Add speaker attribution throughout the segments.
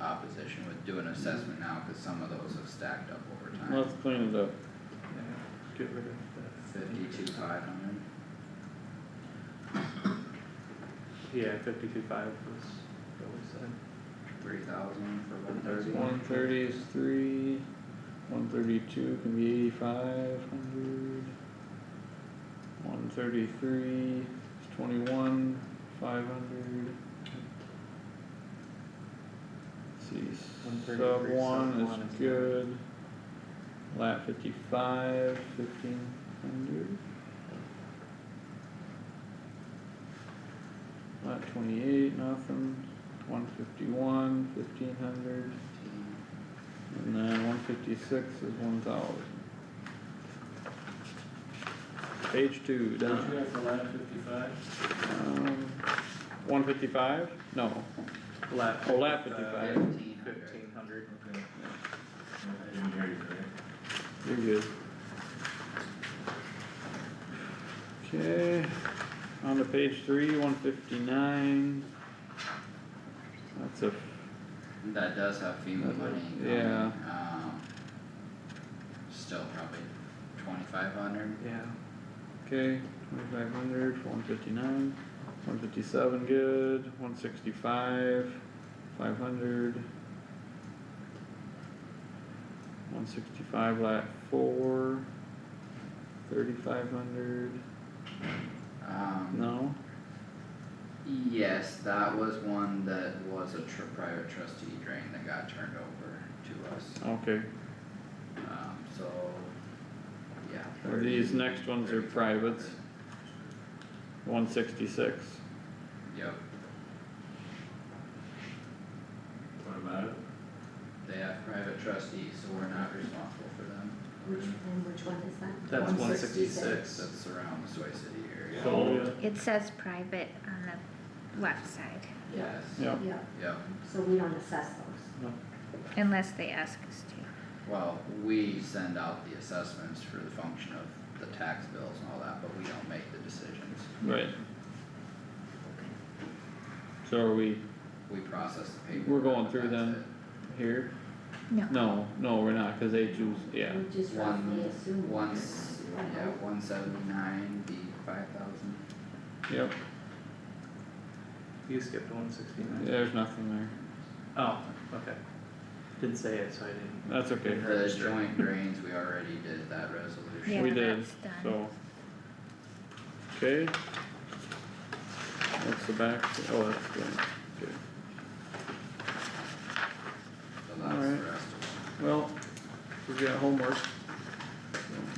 Speaker 1: opposition with doing assessment now, cause some of those have stacked up over time.
Speaker 2: Let's clean it up.
Speaker 3: Get rid of
Speaker 1: Fifty-two, five hundred,
Speaker 3: that. Yeah, fifty-two five was what we said.
Speaker 1: three thousand for one thirty.
Speaker 2: One thirty is three, one thirty-two can be eighty-five hundred. One thirty-three is twenty-one, five hundred. See, sub
Speaker 3: 133, sub
Speaker 2: one
Speaker 3: one is
Speaker 2: is good. Lap fifty-five, fifteen hundred. Lot twenty-eight, nothing, one fifty-one, fifteen hundred. And then one fifty-six is one thousand. Page two,
Speaker 4: Did
Speaker 2: down.
Speaker 4: you have the last fifty-five?
Speaker 2: Um, one fifty-five? No,
Speaker 3: Lap.
Speaker 2: Oh, lap 55.
Speaker 1: Fifteen hundred.
Speaker 3: Fifteen hundred.
Speaker 4: Okay. I didn't hear you there.
Speaker 2: you're good. Okay, on to page three, one fifty-nine. That's a,
Speaker 1: That does have FEMA money coming,
Speaker 2: Yeah.
Speaker 1: um. Still probably twenty-five hundred,
Speaker 3: Yeah.
Speaker 2: okay, twenty-five hundred for one fifty-nine, one fifty-seven, good, one sixty-five, five hundred. One sixty-five, lat four, thirty-five hundred,
Speaker 1: um.
Speaker 2: no?
Speaker 1: Yes, that was one that was a tr- private trustee drain that got turned over to us,
Speaker 2: Okay,
Speaker 1: um, so, yeah.
Speaker 2: And these
Speaker 1: 30,
Speaker 2: next ones are
Speaker 1: 35.
Speaker 2: privates. one sixty-six,
Speaker 1: Yep,
Speaker 4: What about it?
Speaker 1: they have private trustees, so we're not responsible for them.
Speaker 5: Which, and which one is that?
Speaker 3: That's one
Speaker 5: 166.
Speaker 3: sixty-six.
Speaker 1: That's around the Soy City area.
Speaker 4: So,
Speaker 6: It says private on the left side,
Speaker 1: Yes,
Speaker 2: yeah,
Speaker 5: Yeah,
Speaker 1: yep,
Speaker 5: so we don't assess those.
Speaker 6: unless they ask us to.
Speaker 1: well, we send out the assessments for the function of the tax bills and all that, but we don't make the decisions.
Speaker 2: right. So are we
Speaker 1: We process the paperwork.
Speaker 2: We're going through
Speaker 1: and that's
Speaker 2: them. here?
Speaker 6: No.
Speaker 2: No, no, we're not, cause they choose, yeah,
Speaker 5: We just
Speaker 1: it. One,
Speaker 5: roughly assume.
Speaker 1: once, yeah, one seventy-nine, the five thousand.
Speaker 2: yep,
Speaker 3: You skipped one sixty-nine.
Speaker 2: there's nothing there,
Speaker 3: Oh, okay. Didn't say it, so I didn't.
Speaker 2: that's okay,
Speaker 1: The joint drains, we already did that resolution.
Speaker 6: Yeah,
Speaker 2: we did,
Speaker 6: that's done.
Speaker 2: so. Okay. That's the back, oh, that's good, okay,
Speaker 1: So that's the
Speaker 2: Alright.
Speaker 1: rest of
Speaker 2: well, we've got homework,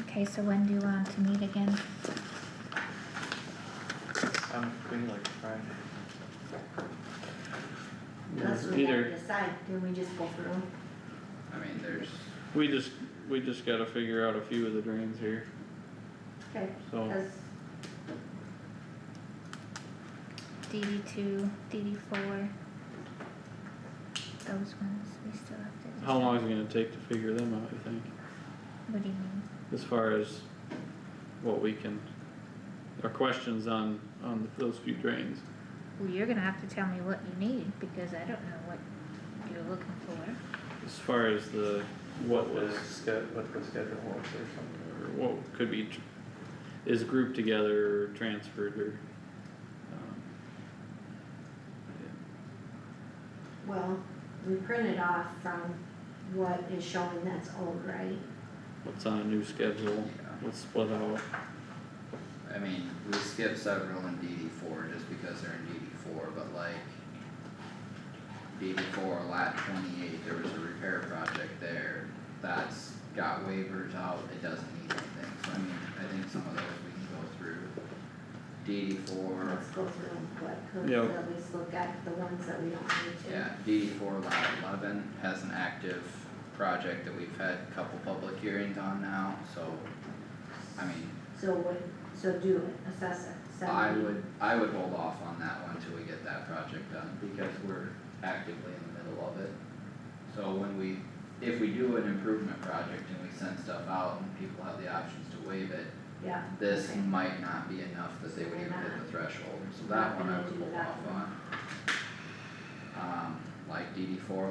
Speaker 6: Okay, so when do you want to meet again?
Speaker 3: I'm between like Friday.
Speaker 5: Unless we have to
Speaker 2: either,
Speaker 5: decide, then we just go through them.
Speaker 1: it. I mean, there's,
Speaker 2: we just, we just gotta figure out a few of the drains here,
Speaker 5: Okay,
Speaker 2: so.
Speaker 5: cause
Speaker 6: DD two, DD four? Those ones we still have to.
Speaker 2: How long is it gonna take to figure them out, you think,
Speaker 6: What do you mean?
Speaker 2: as far as what we can, our questions on, on those few drains?
Speaker 6: Well, you're gonna have to tell me what you need, because I don't know what you're looking for.
Speaker 2: As far as the, what was,
Speaker 3: The sched- what the schedule was or something.
Speaker 2: or what could be, tr- is grouped together, or transferred, or, um,
Speaker 5: Well, we printed off from what is showing that's old, right?
Speaker 2: what's on a new schedule,
Speaker 1: yeah,
Speaker 2: what's split out,
Speaker 1: I mean, we skipped several in DD four just because they're in DD four, but like. DD four, lat twenty-eight, there was a repair project there, that's got waivers out, it doesn't need anything, so I mean, I think some of those we can go through. DD four,
Speaker 5: Let's go through them quick, cause
Speaker 2: Yep.
Speaker 5: at least look at the ones that we don't need to.
Speaker 1: Yeah, DD four lot eleven has an active project that we've had a couple public hearings on now, so, I mean,
Speaker 5: So what, so do it, assess it,
Speaker 1: I
Speaker 5: seventy,
Speaker 1: would, I would hold off on that one till we get that project done, because we're actively in the middle of it. So when we, if we do an improvement project and we send stuff out and people have the options to waive it,
Speaker 5: yeah.
Speaker 1: this
Speaker 5: okay.
Speaker 1: might not be enough that they would even hit the threshold, so that one I would hold off on. Um, like DD four